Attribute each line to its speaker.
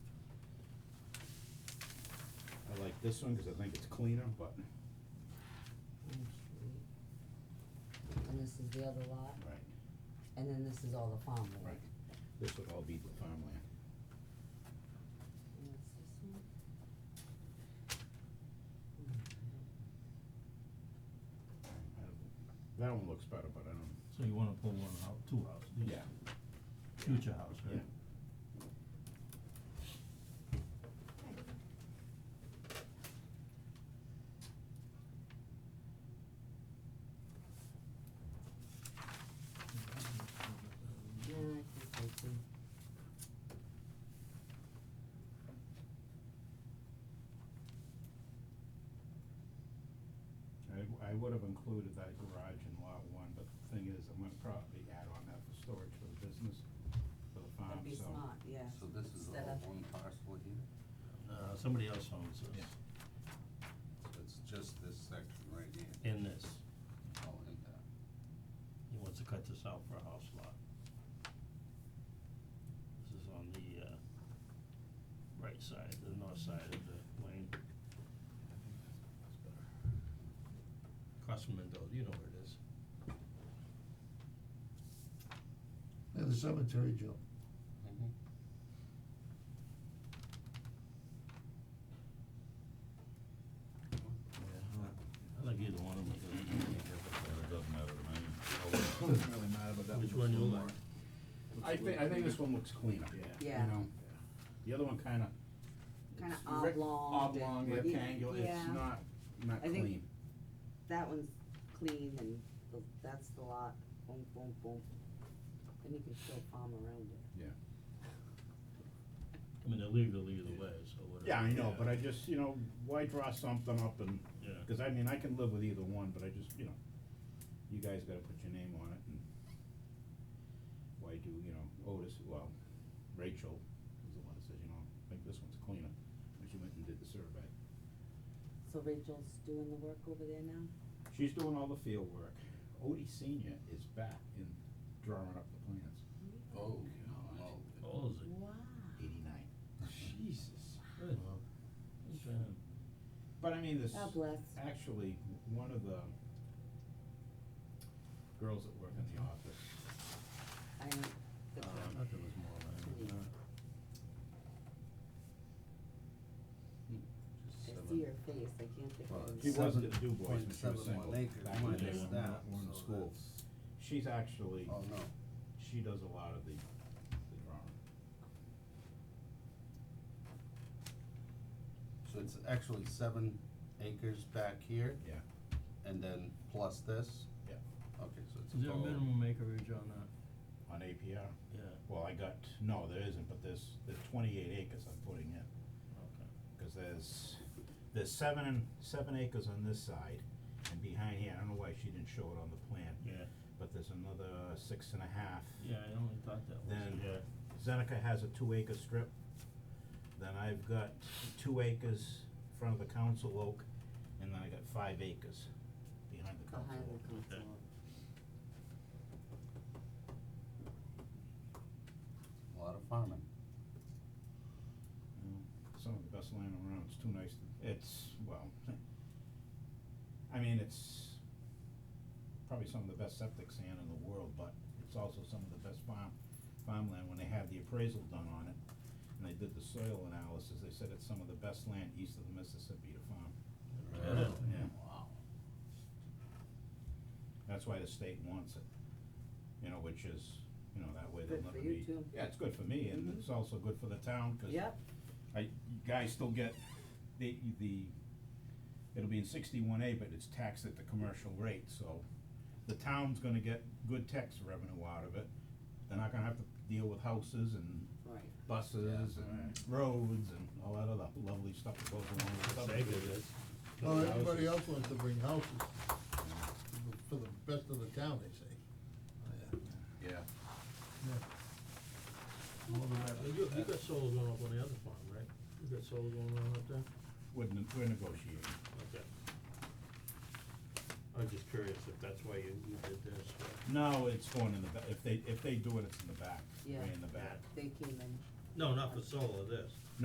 Speaker 1: this one, cause I think it's cleaner, but,
Speaker 2: And this is the other lot,
Speaker 1: right,
Speaker 2: and then this is all the farmland.
Speaker 1: right. This would all be the farmland.
Speaker 2: And that's this one.
Speaker 1: I don't- That one looks better, but I don't,
Speaker 3: So you wanna pull one house, two houses?
Speaker 1: yeah,
Speaker 3: Future house,
Speaker 1: yeah.
Speaker 3: right?
Speaker 2: Yeah, I think I do.
Speaker 1: I, I would have included that garage in lot one, but the thing is, I'm gonna probably add on that for storage for the business, for the farm, Uh, so.
Speaker 2: That'd be smart, yeah.
Speaker 4: So this is
Speaker 2: Instead
Speaker 4: all
Speaker 2: of-
Speaker 4: one parcel here,
Speaker 3: Uh, somebody else owns this,
Speaker 4: so it's just this section right here,
Speaker 3: in this,
Speaker 4: all in that.
Speaker 3: he wants to cut this out for a house lot. This is on the, uh, right side, the north side of the lane. Across from Mendoza, you know where it is.
Speaker 5: Near the cemetery, Joe.
Speaker 4: Mm-hmm.
Speaker 3: I like either one of them,
Speaker 6: It doesn't matter to me.
Speaker 5: Doesn't really matter, but
Speaker 3: Which one you like?
Speaker 1: I think, I think this one looks cleaner,
Speaker 2: Yeah.
Speaker 1: you know? The other one kinda.
Speaker 2: Kinda
Speaker 1: it's re-
Speaker 2: oblong. and-
Speaker 1: Oblong,
Speaker 2: yeah,
Speaker 1: rectangular, it's
Speaker 2: Yeah,
Speaker 1: not, not
Speaker 2: I think-
Speaker 1: clean.
Speaker 2: that one's clean and the- that's the lot, boom, boom, boom. Then you can still farm around it.
Speaker 3: I mean, they're legal either way, so whatever.
Speaker 1: Yeah, I know, but I just, you know, why draw something up and,
Speaker 3: Yeah.
Speaker 1: cause I mean, I can live with either one, but I just, you know, you guys gotta put your name on it and why do, you know, Otis, well, Rachel is the one that says, you know, I think this one's cleaner, when she went and did the survey.
Speaker 2: So Rachel's doing the work over there now?
Speaker 1: She's doing all the field work. Odie Senior is back in drawing up the plans.
Speaker 4: Oh,
Speaker 1: God.
Speaker 4: oh, okay.
Speaker 3: All is it?
Speaker 2: Wow.
Speaker 1: Eighty-nine. Jesus.
Speaker 3: Good. Good for him.
Speaker 1: But I mean, this,
Speaker 2: God bless.
Speaker 1: actually, one of the girls that work in the office,
Speaker 2: I know. Good
Speaker 1: um,
Speaker 2: for
Speaker 1: I
Speaker 2: her.
Speaker 1: thought there was more of uh, that.
Speaker 4: oh,
Speaker 2: I
Speaker 4: Just seven.
Speaker 3: Oh.
Speaker 2: see her face, I can't think
Speaker 4: Well,
Speaker 2: of
Speaker 1: She
Speaker 2: it.
Speaker 1: was
Speaker 4: Seven
Speaker 1: at DuBois when she was
Speaker 4: Seven
Speaker 1: single.
Speaker 4: one acre,
Speaker 1: back in the day
Speaker 4: minus
Speaker 1: when we
Speaker 4: that,
Speaker 1: were in
Speaker 4: so
Speaker 1: school.
Speaker 4: that's-
Speaker 1: She's actually,
Speaker 4: Oh, no,
Speaker 1: she does a lot of the, the drawing.
Speaker 4: so it's actually seven acres back here?
Speaker 1: Yeah.
Speaker 4: And then plus this?
Speaker 1: Yeah.
Speaker 4: Okay, so it's a
Speaker 3: Is there a
Speaker 4: total-
Speaker 3: minimum acreage on that?
Speaker 1: On APR,
Speaker 3: Yeah,
Speaker 1: well, I got, no, there isn't, but there's, there's twenty-eight acres I'm putting in.
Speaker 3: okay.
Speaker 1: Cause there's, there's seven, and- seven acres on this side, and behind here, I don't know why she didn't show it on the plan,
Speaker 3: Yeah,
Speaker 1: but there's another six and a half.
Speaker 3: yeah, I only thought that was.
Speaker 1: Then- Zeneca has a two acre strip, then I've got two acres in front of the council oak, and then I got five acres behind the council
Speaker 2: Behind the
Speaker 1: oak.
Speaker 2: console.
Speaker 4: a lot of farming.
Speaker 1: You know, Some of the best land around, it's too nice, to- it's, well, I mean, it's probably some of the best septic sand in the world, but it's also some of the best farm, farmland, when they had the appraisal done on it, and they did the soil analysis, they said it's some of the best land east of the Mississippi to farm.
Speaker 3: Really?
Speaker 1: Yeah.
Speaker 4: Wow.
Speaker 1: That's why the state wants it, you know, which is, you know, that way they'll
Speaker 2: Good for
Speaker 1: never
Speaker 2: you
Speaker 1: be.
Speaker 2: too.
Speaker 1: Yeah, it's good for me, and
Speaker 2: Mhm.
Speaker 1: it's also good for the town, cause
Speaker 2: Yep,
Speaker 1: I, you guys still get the, the, it'll be in sixty-one A, but it's taxed at the commercial rate, so the town's gonna get good tax revenue out of it. They're not gonna have to deal with houses and
Speaker 2: right.
Speaker 1: buses and roads and all that other lovely stuff that goes along with
Speaker 3: That's
Speaker 1: subdivision.
Speaker 5: Well,
Speaker 1: Houses.
Speaker 5: everybody else wants to bring houses for the best of the town, they say. Oh,
Speaker 1: Yeah.
Speaker 5: yeah. Yeah. All the way.
Speaker 3: You, you got solar going up on the other farm, right? You got solar going on up there?
Speaker 1: We're, ne- we're negotiating.
Speaker 3: Okay. I'm just curious if that's why you, you did this, or-
Speaker 1: No, it's going in the back, if they, if they do it, it's in the back, way
Speaker 2: Yeah.
Speaker 1: in the back.
Speaker 2: They came in.
Speaker 3: no, not for solar, this.